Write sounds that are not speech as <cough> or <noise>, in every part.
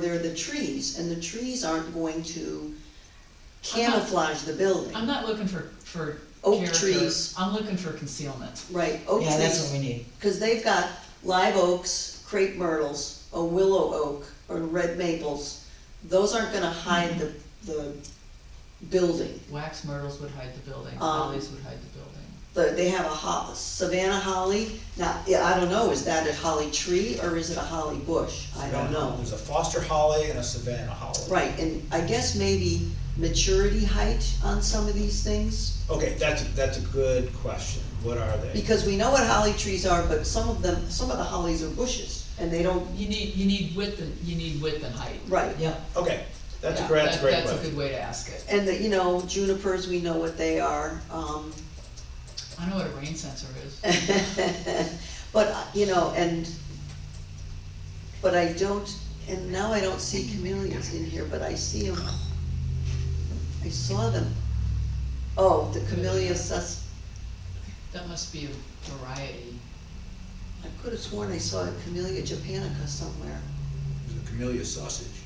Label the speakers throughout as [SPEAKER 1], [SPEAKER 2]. [SPEAKER 1] there are the trees, and the trees aren't going to camouflage the building.
[SPEAKER 2] I'm not looking for, for
[SPEAKER 1] Oak
[SPEAKER 2] character,
[SPEAKER 1] trees.
[SPEAKER 2] I'm looking for concealment.
[SPEAKER 1] Right, oak
[SPEAKER 3] Yeah, that's what
[SPEAKER 1] trees,
[SPEAKER 3] we need.
[SPEAKER 1] because they've got live oaks, crepe myrtles, a willow oak, or red maples. Those aren't gonna hide the, the building.
[SPEAKER 2] Wax myrtles would hide the building,
[SPEAKER 1] Um,
[SPEAKER 2] lilies would hide the building.
[SPEAKER 1] The- They have a ho, Savannah holly, now, yeah, I don't know, is that a holly tree or is it a holly bush? I don't know.
[SPEAKER 4] There's a foster holly and a Savannah holly.
[SPEAKER 1] Right, and I guess maybe maturity height on some of these things?
[SPEAKER 4] Okay, that's, that's a good question. What are they?
[SPEAKER 1] Because we know what holly trees are, but some of them, some of the hollies are bushes, and they don't,
[SPEAKER 2] You need, you need width and, you need width and height.
[SPEAKER 1] right.
[SPEAKER 3] Yeah,
[SPEAKER 4] Okay, that's a
[SPEAKER 2] Yeah,
[SPEAKER 4] great, that's a
[SPEAKER 2] that-
[SPEAKER 4] great
[SPEAKER 2] That's a
[SPEAKER 4] question.
[SPEAKER 2] good way to ask it.
[SPEAKER 1] And the, you know, junipers, we know what they are, um, <laughs>
[SPEAKER 2] I know what a rain sensor is.
[SPEAKER 1] but, you know, and, but I don't, and now I don't see camellias in here, but I see them. I saw them. Oh, the camellia sus,
[SPEAKER 2] That must be a variety.
[SPEAKER 1] I could have sworn I saw a camellia japonica somewhere.
[SPEAKER 4] There's a Camellia sausage.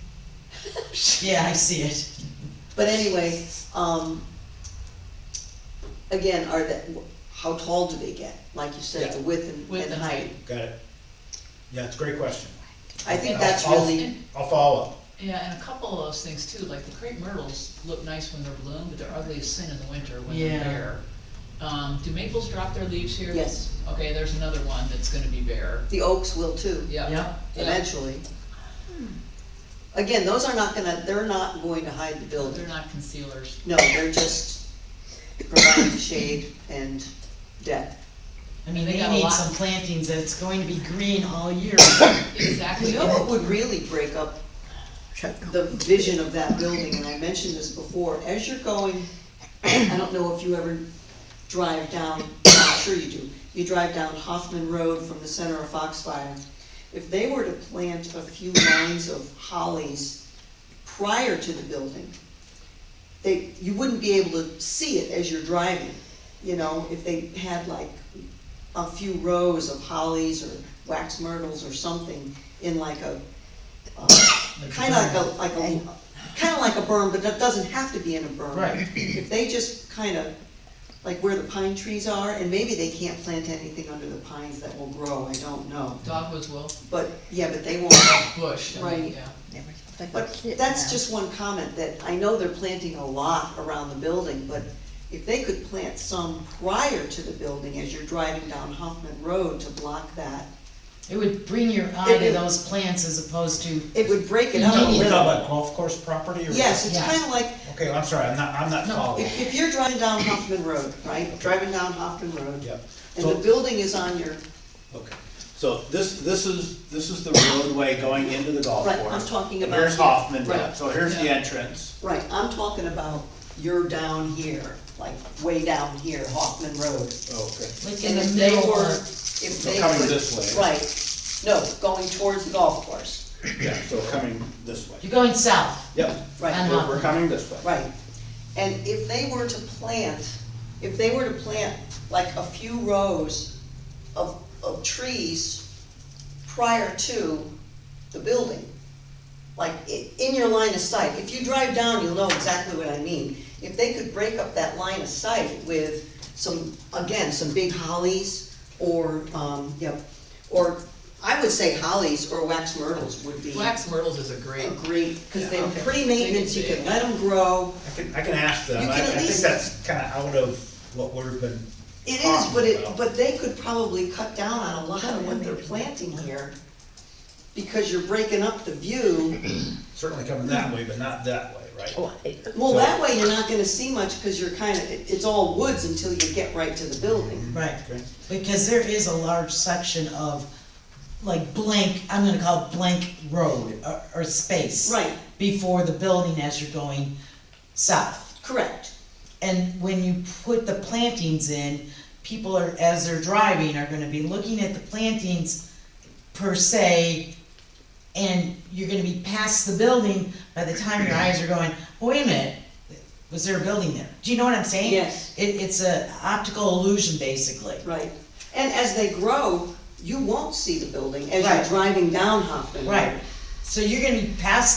[SPEAKER 3] yeah, I see it.
[SPEAKER 1] But anyway, um, again, are that, how tall do they get? Like you said, the
[SPEAKER 4] Yeah.
[SPEAKER 1] width and,
[SPEAKER 2] Width
[SPEAKER 1] and
[SPEAKER 2] and
[SPEAKER 1] height.
[SPEAKER 2] height.
[SPEAKER 4] Got it? Yeah, it's a great question.
[SPEAKER 1] I think
[SPEAKER 2] Yeah.
[SPEAKER 1] that's
[SPEAKER 4] I'll-
[SPEAKER 1] really,
[SPEAKER 4] I'll follow up.
[SPEAKER 2] Yeah, and a couple of those things too, like the crepe myrtles look nice when they're bloomed, but they're ugly as sin in the winter when they're
[SPEAKER 3] Yeah.
[SPEAKER 2] bare. Um, do maples drop their leaves here?
[SPEAKER 1] Yes.
[SPEAKER 2] Okay, there's another one that's gonna be bare.
[SPEAKER 1] the oaks will too,
[SPEAKER 2] Yeah.
[SPEAKER 3] Yeah.
[SPEAKER 1] eventually. Again, those are not gonna, they're not going to hide the building.
[SPEAKER 2] They're not concealers.
[SPEAKER 1] No, they're just providing shade and depth.
[SPEAKER 3] I mean,
[SPEAKER 2] They
[SPEAKER 3] we
[SPEAKER 2] got a
[SPEAKER 3] need
[SPEAKER 2] lot.
[SPEAKER 3] some plantings that's going to be green all year.
[SPEAKER 2] Exactly.
[SPEAKER 1] You know what would really break up the vision of that building, and I mentioned this before, as you're going, I don't know if you ever drive down, I'm sure you do, you drive down Hoffman Road from the center of Foxfire. If they were to plant a few lines of hollies prior to the building, they, you wouldn't be able to see it as you're driving, you know, if they had like a few rows of hollies or wax myrtles or something in like a, uh, Kinda like a, like a, kinda like a berm, but that doesn't have to be in a berm.
[SPEAKER 3] Right.
[SPEAKER 1] If they just kinda, like where the pine trees are, and maybe they can't plant anything under the pines that will grow, I don't know.
[SPEAKER 2] Dogwoods will,
[SPEAKER 1] But, yeah, but they won't,
[SPEAKER 2] bush, I
[SPEAKER 1] Right.
[SPEAKER 2] mean, yeah.
[SPEAKER 1] but that's just one comment, that I know they're planting a lot around the building, but if they could plant some prior to the building as you're driving down Hoffman Road to block that,
[SPEAKER 3] It would bring your eye to
[SPEAKER 1] It-
[SPEAKER 3] those plants as opposed to,
[SPEAKER 1] it would break it up a
[SPEAKER 3] Convenient.
[SPEAKER 4] We're talking
[SPEAKER 1] little.
[SPEAKER 4] about golf course property or?
[SPEAKER 1] Yes, it's
[SPEAKER 3] Yeah.
[SPEAKER 1] kinda like,
[SPEAKER 4] Okay, I'm sorry, I'm not, I'm not
[SPEAKER 2] No.
[SPEAKER 4] following.
[SPEAKER 1] If, if you're driving down Hoffman Road, right, driving down Hoffman Road,
[SPEAKER 4] Yep.
[SPEAKER 1] and the
[SPEAKER 5] So-
[SPEAKER 1] building is on your,
[SPEAKER 5] Okay, so this, this is, this is the roadway going into the golf
[SPEAKER 1] Right,
[SPEAKER 5] course.
[SPEAKER 1] I'm talking
[SPEAKER 5] And
[SPEAKER 1] about-
[SPEAKER 5] Here's Hoffman, Road.
[SPEAKER 1] Right.
[SPEAKER 5] so here's the
[SPEAKER 2] Yeah.
[SPEAKER 5] entrance.
[SPEAKER 1] right, I'm talking about you're down here, like way down here, Hoffman Road.
[SPEAKER 4] Oh,
[SPEAKER 5] Okay.
[SPEAKER 3] like in
[SPEAKER 1] And
[SPEAKER 3] the
[SPEAKER 1] if they
[SPEAKER 3] middle
[SPEAKER 1] were,
[SPEAKER 3] or,
[SPEAKER 1] if they
[SPEAKER 5] coming
[SPEAKER 1] could-
[SPEAKER 5] this way.
[SPEAKER 1] Right, no, going towards the golf course,
[SPEAKER 5] Yeah, so coming this way.
[SPEAKER 3] you're going south.
[SPEAKER 5] Yep,
[SPEAKER 1] right,
[SPEAKER 3] And-
[SPEAKER 5] we're, we're coming this way.
[SPEAKER 1] right. And if they were to plant, if they were to plant like a few rows of, of trees prior to the building, like, i- in your line of sight, if you drive down, you'll know exactly what I mean. If they could break up that line of sight with some, again, some big hollies, or, um, you know, or, I would say hollies or wax myrtles would be a
[SPEAKER 2] Wax myrtles is a great,
[SPEAKER 1] great, because they're
[SPEAKER 2] Yeah.
[SPEAKER 1] pretty maintenance, you
[SPEAKER 2] They can
[SPEAKER 1] can
[SPEAKER 2] be-
[SPEAKER 1] let them grow.
[SPEAKER 4] I can, I can ask them.
[SPEAKER 1] You
[SPEAKER 4] I, I
[SPEAKER 1] can at
[SPEAKER 4] think
[SPEAKER 1] least-
[SPEAKER 4] that's kinda out of what we've been,
[SPEAKER 1] It is, but it, but they could probably cut down on a lot of what they're planting here, because you're breaking up the view.
[SPEAKER 4] certainly coming that way, but not that way, right?
[SPEAKER 1] Well, that way you're not gonna see much, cause you're kinda, it- it's all woods until you get right to the building.
[SPEAKER 3] Right,
[SPEAKER 4] Okay.
[SPEAKER 3] because there is a large section of, like blank, I'm gonna call it blank road or, or space.
[SPEAKER 1] Right.
[SPEAKER 3] Before the building as you're going south.
[SPEAKER 1] Correct.
[SPEAKER 3] And when you put the plantings in, people are, as they're driving, are gonna be looking at the plantings per se, and you're gonna be past the building by the time your eyes are going, "Oh, wait a minute, was there a building there? Do you know what I'm saying?
[SPEAKER 1] Yes.
[SPEAKER 3] It, it's a optical illusion, basically.
[SPEAKER 1] Right. And as they grow, you won't see the building as you're
[SPEAKER 3] Right.
[SPEAKER 1] driving down Hoffman Road.
[SPEAKER 3] Right. So you're gonna be past